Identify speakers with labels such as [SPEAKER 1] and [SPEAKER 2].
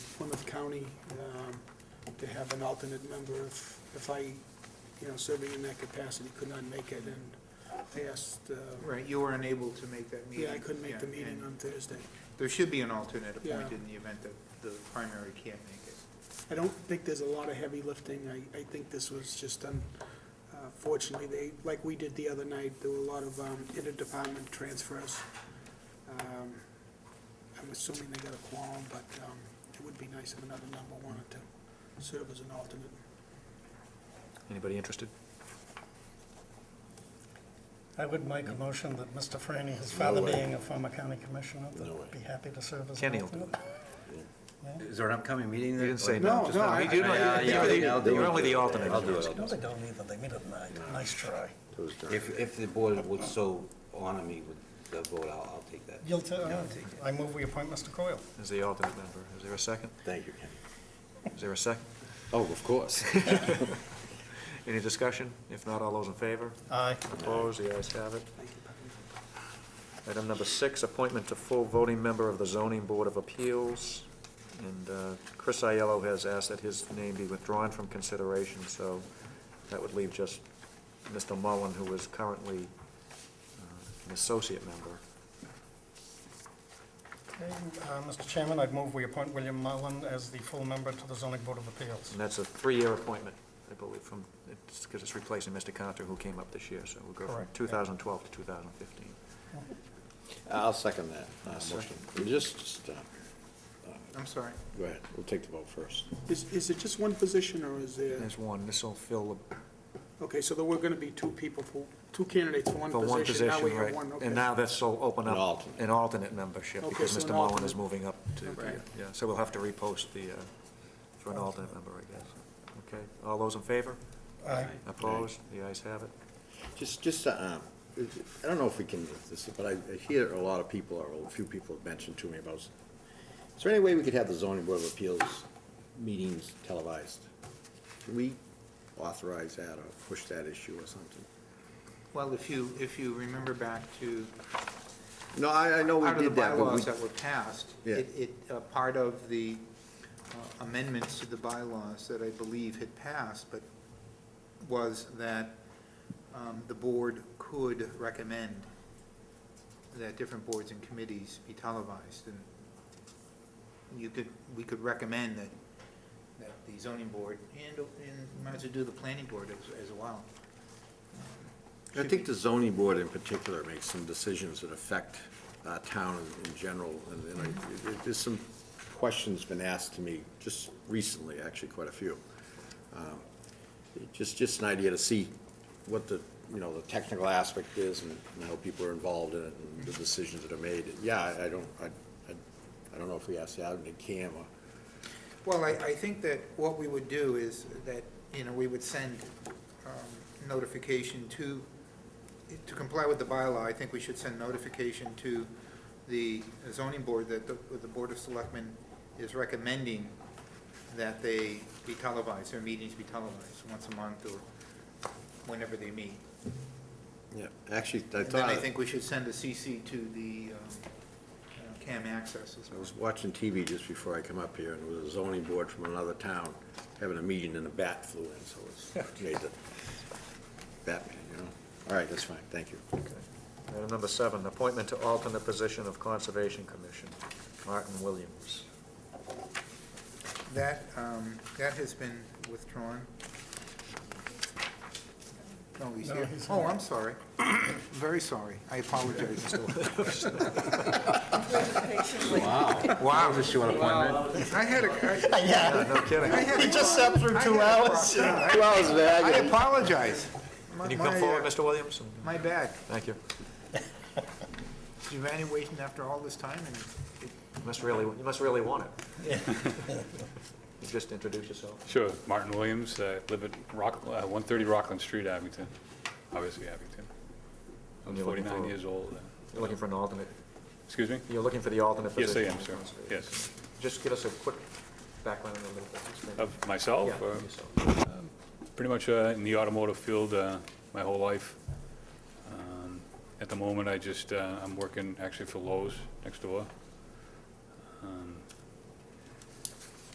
[SPEAKER 1] county um, to have an alternate member if, if I, you know, serving in that capacity could not make it, and I asked, uh,
[SPEAKER 2] Right, you were unable to make that meeting.
[SPEAKER 1] yeah, I couldn't make the
[SPEAKER 2] Yeah,
[SPEAKER 1] meeting
[SPEAKER 2] and
[SPEAKER 1] on Thursday.
[SPEAKER 2] There should be an alternate
[SPEAKER 1] Yeah.
[SPEAKER 2] appointed in the event that the primary can't make it.
[SPEAKER 1] I don't think there's a lot of heavy lifting, I, I think this was just done, uh, fortunately, they, like we did the other night, there were a lot of um, interdepartment transfers. Um, I'm assuming they got a quorum, but um, it would be nice if another number wanted to serve as an alternate.
[SPEAKER 3] Anybody interested?
[SPEAKER 4] I would make a motion that Mr. Franny, his father being a former county commissioner, that would be happy to serve as an
[SPEAKER 3] Kenny will do
[SPEAKER 4] alternate.
[SPEAKER 5] Is there an upcoming meeting?
[SPEAKER 3] You
[SPEAKER 5] that-
[SPEAKER 3] didn't say
[SPEAKER 5] like-
[SPEAKER 3] no.
[SPEAKER 1] No, no, I-
[SPEAKER 3] You do not-
[SPEAKER 5] Yeah,
[SPEAKER 3] you're
[SPEAKER 5] yeah,
[SPEAKER 3] the-
[SPEAKER 5] yeah, I'll do
[SPEAKER 3] You're
[SPEAKER 5] it.
[SPEAKER 3] only the alternate.
[SPEAKER 5] I'll do it.
[SPEAKER 4] No, they don't either, they meet at night. Nice try.
[SPEAKER 5] If, if the board would so honor me with the vote, I'll, I'll take that.
[SPEAKER 4] You'll, ta- I move we appoint Mr. Coyle.
[SPEAKER 3] Is the alternate member, is there a second?
[SPEAKER 5] Thank you, Ken.
[SPEAKER 3] Is there a second?
[SPEAKER 5] Oh, of course.
[SPEAKER 3] Any discussion? If not, all those in favor?
[SPEAKER 4] Aye.
[SPEAKER 3] Opposed, the ayes have it.
[SPEAKER 1] Thank you, Patty.
[SPEAKER 3] Item number six, appointment to full voting member of the Zoning Board of Appeals. And uh, Chris Aiello has asked that his name be withdrawn from consideration, so that would leave just Mr. Mullen, who is currently uh, an associate member.
[SPEAKER 4] Okay, uh, Mr. Chairman, I'd move we appoint William Mullen as the full member to the zoning board of appeals.
[SPEAKER 3] And that's a three-year appointment, I believe, from, it's, because it's replacing Mr. Cantor, who came up this year, so we'll go from
[SPEAKER 4] Correct, yeah.
[SPEAKER 3] 2012 to 2015.
[SPEAKER 6] I'll second that uh, motion. Just, just, uh,
[SPEAKER 2] I'm sorry.
[SPEAKER 6] go ahead, we'll take the vote first.
[SPEAKER 1] Is, is it just one position, or is there,
[SPEAKER 3] There's one, this'll fill
[SPEAKER 1] okay, so there were gonna be two people for, two candidates for
[SPEAKER 3] the,
[SPEAKER 1] one
[SPEAKER 3] for one
[SPEAKER 1] position,
[SPEAKER 3] position,
[SPEAKER 1] now we have
[SPEAKER 3] right?
[SPEAKER 1] one, okay.
[SPEAKER 3] And now this'll open
[SPEAKER 6] An
[SPEAKER 3] up
[SPEAKER 6] alternate.
[SPEAKER 3] an alternate membership,
[SPEAKER 1] Okay,
[SPEAKER 3] because
[SPEAKER 1] so an
[SPEAKER 3] Mr. Mullen is
[SPEAKER 1] alternate.
[SPEAKER 3] moving up to,
[SPEAKER 1] Okay.
[SPEAKER 3] yeah, so we'll have to repost the, uh, for an alternate member, I guess. Okay, all those in favor?
[SPEAKER 4] Aye.
[SPEAKER 3] Opposed? The ayes have it.
[SPEAKER 6] Just, just, uh, um, I don't know if we can, this, but I I hear a lot of people, or a few people have mentioned to me about, is there any way we could have the zoning board of appeals meetings televised? Can we authorize that or push that issue or something?
[SPEAKER 2] Well, if you, if you remember back to,
[SPEAKER 6] No, I, I know we
[SPEAKER 2] out of the
[SPEAKER 6] did that, but we,
[SPEAKER 2] bylaws that were passed,
[SPEAKER 6] Yeah.
[SPEAKER 2] it, it, uh, part of the uh, amendments to the bylaws that I believe had passed, but was that um, the board could recommend that different boards and committees be televised, and you could, we could recommend that, that the zoning board, and, and might as well do the planning board as, as well.
[SPEAKER 6] I think the zoning board in particular makes some decisions that affect our town in- in general, and, and I- it- there's some questions been asked to me just recently, actually quite a few. Um, it- Just, just an idea to see what the, you know, the technical aspect is and and how people are involved in it and the decisions that are made. Yeah, I- I don't, I, I I don't know if we ask the admin cam or
[SPEAKER 2] Well, I, I think that what we would do is that, you know, we would send um, notification to, to comply with the bylaw, I think we should send notification to the zoning board that the, the Board of Selectmen is recommending that they be televised, their meetings be televised once a month or whenever they meet.
[SPEAKER 6] Yeah, actually, I
[SPEAKER 2] And then
[SPEAKER 6] thought,
[SPEAKER 2] I
[SPEAKER 6] I
[SPEAKER 2] think we should send a CC to the um, uh, CAM access as well.
[SPEAKER 6] was watching TV just before I come up here, and it was a zoning board from another town having a meeting, and a bat flew in, so it's made the Batman, you know? All right, that's fine, thank you.
[SPEAKER 3] Okay. Item number seven, appointment to alternate position of Conservation Commission, Martin Williams.
[SPEAKER 2] That, um, that has been withdrawn. No, he's
[SPEAKER 4] No,
[SPEAKER 2] here.
[SPEAKER 4] he's
[SPEAKER 2] Oh,
[SPEAKER 4] here.
[SPEAKER 2] I'm sorry. Very sorry. I apologize, Mr.
[SPEAKER 6] Wow. Was this your appointment?
[SPEAKER 2] Lynch. I had a, I-
[SPEAKER 4] Yeah,
[SPEAKER 3] No kidding.
[SPEAKER 2] I had,
[SPEAKER 4] just sat through
[SPEAKER 2] two hours.
[SPEAKER 6] Two hours of
[SPEAKER 2] I
[SPEAKER 6] agony.
[SPEAKER 2] apologize. My-
[SPEAKER 3] Can you come
[SPEAKER 2] my,
[SPEAKER 3] forward,
[SPEAKER 2] uh,
[SPEAKER 3] Mr. Williams? And-
[SPEAKER 2] My bad.
[SPEAKER 3] Thank you.
[SPEAKER 2] You've been waiting after all this time and
[SPEAKER 3] You must really, you must really want it. You Just introduce yourself.
[SPEAKER 7] Sure, Martin Williams, I live at Rock, uh, 130 Rockland Street, Abington, obviously Abington. I'm
[SPEAKER 3] And you're looking
[SPEAKER 7] 49
[SPEAKER 3] for-
[SPEAKER 7] years old. uh,
[SPEAKER 3] You're looking for an alternate,
[SPEAKER 7] Excuse me?
[SPEAKER 3] you're looking for the alternate
[SPEAKER 7] Yes, I
[SPEAKER 3] position.
[SPEAKER 7] am, sir. Yes.
[SPEAKER 3] Just give us a quick background a little bit. just maybe-
[SPEAKER 7] Of myself,
[SPEAKER 3] Yeah,
[SPEAKER 7] or
[SPEAKER 3] yourself.
[SPEAKER 7] pretty much uh, in the automotive field uh, my whole life. Um, At the moment, I just, uh, I'm working actually for Lowe's next door. Um,